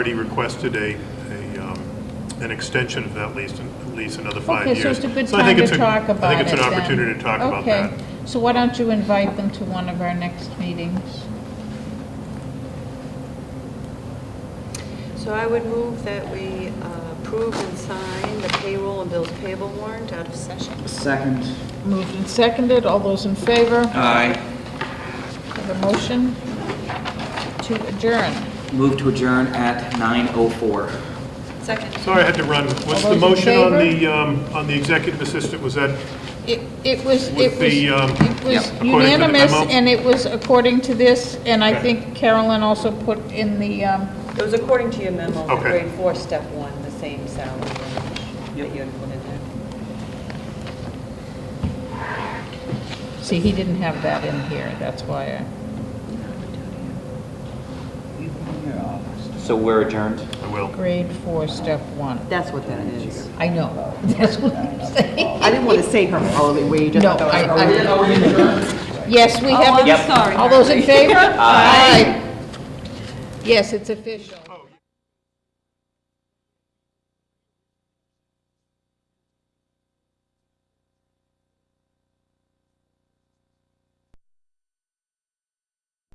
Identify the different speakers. Speaker 1: already requested a, a, um, an extension of that lease, and- lease another five years.
Speaker 2: Okay, so it's a good
Speaker 1: I
Speaker 2: time
Speaker 1: think
Speaker 2: to
Speaker 1: it's a-
Speaker 2: talk about it
Speaker 1: I think it's an
Speaker 2: then.
Speaker 1: opportunity to talk about that.
Speaker 2: Okay, so why don't you invite them to one of our next meetings?
Speaker 3: So I would move that we uh, approve and sign the payroll and bills payable warrant out of session.
Speaker 4: Second.
Speaker 2: Moved and seconded, all those in favor
Speaker 4: Aye.
Speaker 2: of the motion to adjourn?
Speaker 4: Move to adjourn at 9:04.
Speaker 3: Second.
Speaker 1: Sorry, I had to run. What's
Speaker 2: All
Speaker 1: the
Speaker 2: those in
Speaker 1: motion on
Speaker 2: favor?
Speaker 1: the, um, on the executive assistant? Was that,
Speaker 2: It it was, it
Speaker 1: With
Speaker 2: was
Speaker 1: the, um,
Speaker 2: it
Speaker 4: yeah,
Speaker 2: was
Speaker 4: according
Speaker 1: to the
Speaker 2: unanimous,
Speaker 1: memo?
Speaker 2: and it was according to this, and I
Speaker 1: Okay.
Speaker 2: think Carolyn also put in the, um,
Speaker 3: It was according to your memo, the
Speaker 1: Okay.
Speaker 3: grade four, step one, the same salary range that you had put in there.
Speaker 2: see, he didn't have that in here, that's why I...
Speaker 4: So we're adjourned?
Speaker 1: I will.
Speaker 2: Grade four, step one.
Speaker 5: That's what that is.
Speaker 2: I know, that's what I'm saying.
Speaker 5: I didn't want to say her hourly wage. I
Speaker 2: No,
Speaker 5: thought that was
Speaker 2: I-
Speaker 5: hourly.
Speaker 2: I- Yes, we
Speaker 3: Oh,
Speaker 2: have.
Speaker 3: I'm Yep. sorry.
Speaker 2: All those in favor? Aye. Yes, it's official.